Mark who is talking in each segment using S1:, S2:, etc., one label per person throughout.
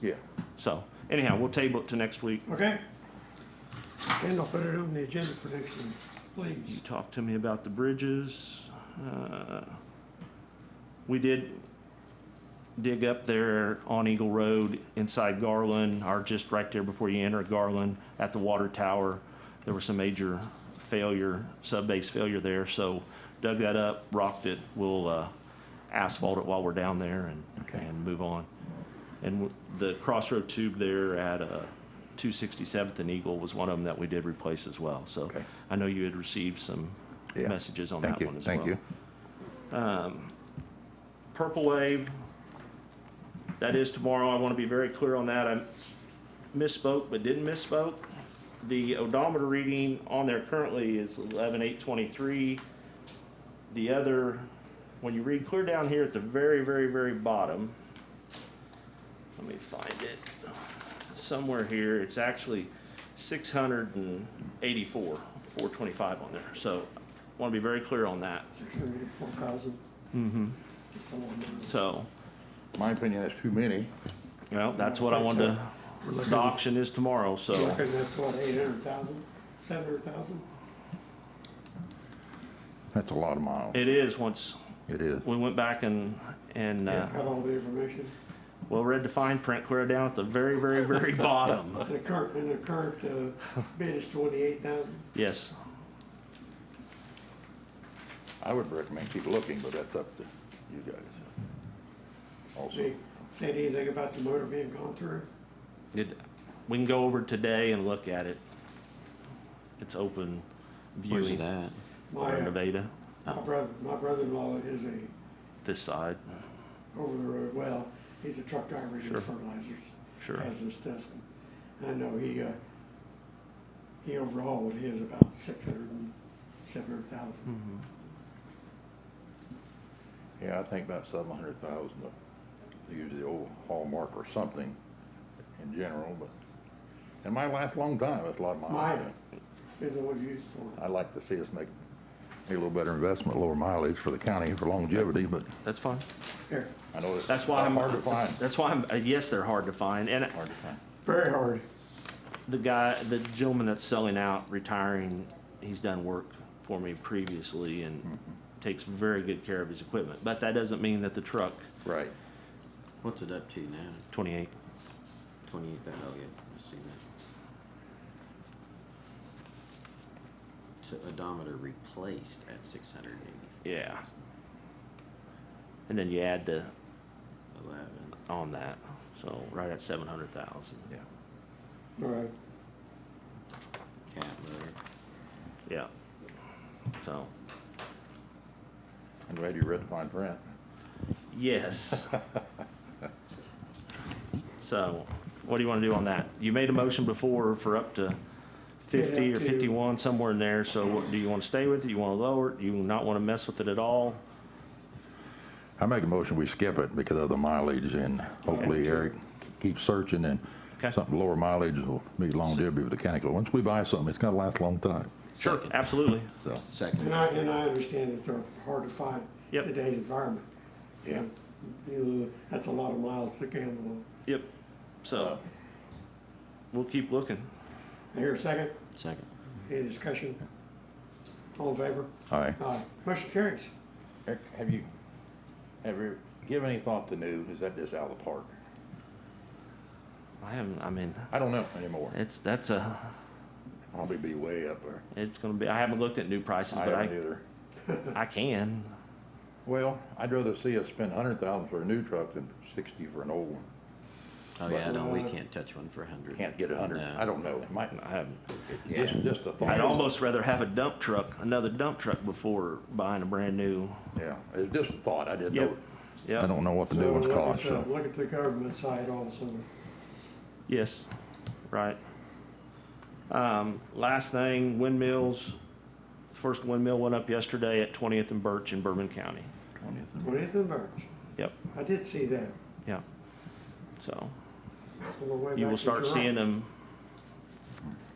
S1: Yeah.
S2: So anyhow, we'll table it to next week.
S3: Okay? And I'll put it on the agenda for next week, please.
S2: You talked to me about the bridges. Uh, We did dig up there on Eagle Road inside Garland, or just right there before you enter Garland at the water tower. There was some major failure, sub-base failure there, so dug that up, rocked it. We'll uh, asphalt it while we're down there and, and move on. And w- the crossroad tube there at uh, 267th and Eagle was one of them that we did replace as well. So
S1: Okay.
S2: I know you had received some
S1: Yeah.
S2: messages on
S1: Thank
S2: that
S1: you,
S2: one as well.
S1: thank you.
S2: Purple Wave, that is tomorrow. I want to be very clear on that. I misspoke, but didn't misspoke. The odometer reading on there currently is eleven eight twenty-three. The other, when you read clear down here at the very, very, very bottom, let me find it. Somewhere here, it's actually six hundred and eighty-four, four twenty-five on there. So I want to be very clear on that.
S3: Six hundred and four thousand. Mm-hmm.
S2: So,
S1: My opinion, that's too many.
S2: Well, that's what I wanted to, the auction is tomorrow,
S3: Looking
S2: so,
S3: at what, eight hundred thousand, seven hundred thousand?
S1: That's a lot of miles.
S2: it is, once,
S1: It is.
S2: we went back and, and, uh,
S3: Got all the information.
S2: well, read the fine print clear down at the very, very, very bottom.
S3: The current, and the current, uh, bid is twenty-eight thousand.
S2: Yes,
S1: I would recommend keep looking, but that's up to you guys. Also,
S3: They said anything about the motor being gone through?
S2: it, we can go over today and look at it. It's open
S4: Where's it
S2: viewing
S4: at?
S3: My,
S2: over in
S3: uh,
S2: Nevada,
S3: my brother, my brother-in-law is a
S2: this side,
S3: over the road. Well, he's a truck driver, he does fertilizers.
S2: Sure.
S3: Hazardous stuff. And I know he, uh, he overhauled his about six hundred and seven hundred
S2: Hmm.
S3: thousand.
S1: yeah, I think about seven hundred thousand, use the old hallmark or something in general, but, and my life, long time, that's a lot of miles.
S3: Mine is the one used for
S2: Uh,
S3: it.
S1: I'd like to see us make a little better investment, lower mileage for the county for longevity, but
S2: that's fine.
S3: Here,
S1: I know it's
S2: That's why I'm.
S1: hard to find.
S2: That's why I'm, uh, yes, they're hard to find, and
S1: Hard to find.
S3: very hard.
S2: the guy, the gentleman that's selling out, retiring, he's done work for me previously and takes very good care of his equipment. But that doesn't mean that the truck,
S1: Right.
S4: What's it up to now?
S2: twenty-eight,
S4: Twenty-eight thousand. Oh yeah, I see that. To odometer replaced at six hundred eighty
S2: yeah. And then you add the,
S4: eleven.
S2: on that, so right at seven hundred thousand,
S1: Yeah.
S3: All right.
S4: Cat motor.
S2: yeah. So,
S1: I'm glad you read the fine print.
S2: yes. So, what do you wanna do on that? You made a motion before for up to fifty
S3: Yeah,
S2: or
S3: up to-
S2: fifty-one, somewhere in there, so what, do you wanna stay with it, you wanna lower it, do you not wanna mess with it at all?
S1: I make a motion, we skip it because of the mileage and hopefully Eric keeps searching and
S2: Okay.
S1: something lower mileage will be longevity with the county. 'Cause Once we buy something, it's gonna last a long time,
S2: Sure,
S4: Second.
S2: absolutely.
S1: so.
S4: Second.
S3: And I, and I understand that they're hard to find. in
S2: Yep.
S3: Today's environment.
S1: Yeah.
S3: You know, that's a lot of miles to gamble on.
S2: Yep. So we'll keep looking.
S3: I hear a second,
S4: Second.
S3: any discussion? All in favor?
S1: Aye.
S3: Aye. Motion carries.
S1: Eric, have you, have you given any thought to new, is that just out of the park?
S2: I haven't. I mean,
S1: I don't know anymore.
S2: it's that's a.
S1: Probably be way up there.
S2: It's gonna be. I haven't looked at new prices,
S1: I
S2: but
S1: haven't
S2: I
S1: either.
S2: I can.
S1: Well, I'd rather see us spend a hundred thousand for a new truck than sixty for an old one.
S4: Oh yeah, I don't. We can't touch one for a hundred.
S1: Can't get a hundred, I don't know, it might,
S2: I haven't.
S1: just, just a thought.
S2: I'd almost rather have a dump truck, another dump truck, before buying a brand new.
S1: Yeah, it's just a thought, I didn't
S2: Yep.
S1: know.
S2: Yep.
S1: I don't know what the
S3: So
S1: new ones
S3: look at
S1: cost,
S3: the-
S1: so. uh,
S3: Look at uh, the government side also.
S2: Yes, right. Um, last thing, windmills. First windmill went up yesterday at 20th and Birch in Bourbon County.
S3: Twentieth of March.
S2: Yep.
S3: I did see that.
S2: Yeah. So
S3: on the way
S2: you
S3: back
S2: will
S3: to
S2: start
S3: Toronto.
S2: seeing uh, them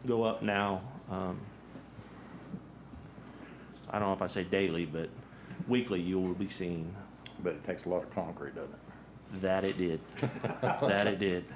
S2: go up now. um, I don't know if I say daily, but weekly, you will be seeing
S1: But it takes a lot of concrete, doesn't it?
S2: that it did. That it did.